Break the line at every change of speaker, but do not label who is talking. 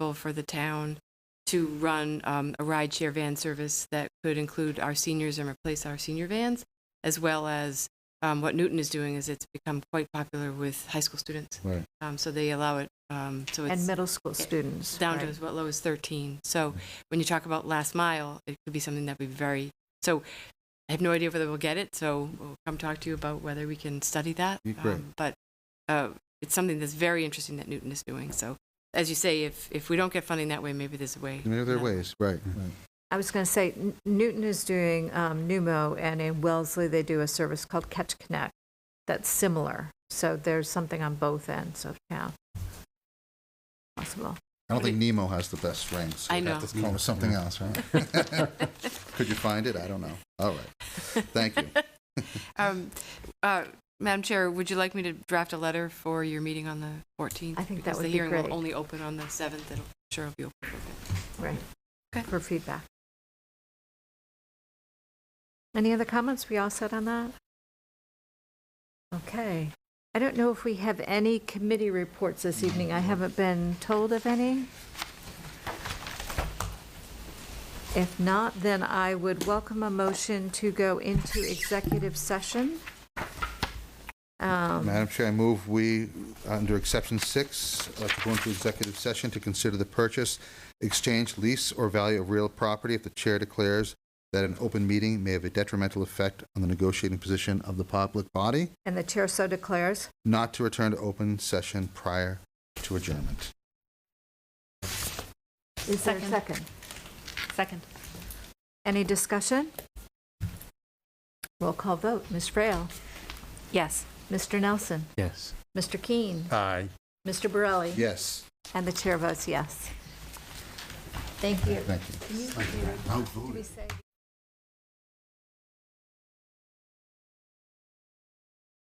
potential for the town to run um, a rideshare van service that could include our seniors and replace our senior vans, as well as um, what Newton is doing is it's become quite popular with high school students.
Right.
Um, so they allow it. Um, so it's
And middle school students.
down to
right.
as well low as 13. So when you talk about last mile, it could be something that we very, so I have no idea whether we'll get it, so we'll come talk to you about whether we can study that.
Be great.
Um, But uh, it's something that's very interesting that Newton is doing. So as you say, if, if we don't get funding that way, maybe there's a way.
There are other ways, right. right.
I was going to say, N- Newton is doing um, Numo, and in Wellesley, they do a service called Catch Connect that's similar. So there's something on both ends of town. Possible.
I don't think Nemo has the best strength. so
I
we'd have
know.
to come up with something else, right? Could you find it? I don't know. All right. Thank you.
Um, uh, Madam Chair, would you like me to draft a letter for your meeting on the 14th?
I think
Because
that would be
the hearing
great.
will only open on the 7th. It'll, sure it'll be open.
Right.
Okay.
For feedback. Any other comments? We all set on that? Okay. I don't know if we have any committee reports this evening. I haven't been told of any. If not, then I would welcome a motion to go into executive session. Um,
Madam Chair, I move we, under exception six, uh, to go into executive session to consider the purchase, exchange, lease, or value of real property if the chair declares that an open meeting may have a detrimental effect on the negotiating position of the public body,
And the chair so declares.
not to return to open session prior to adjournment.
Is there a second?
Second.
Any discussion? Roll call vote. Ms. Frail.
Yes.
Mr. Nelson.
Yes.
Mr. Keene.
Aye.
Mr. Borelli.
Yes,
And the chair votes yes. Thank you.
thank you.
Can you-
Outvoted.
we say-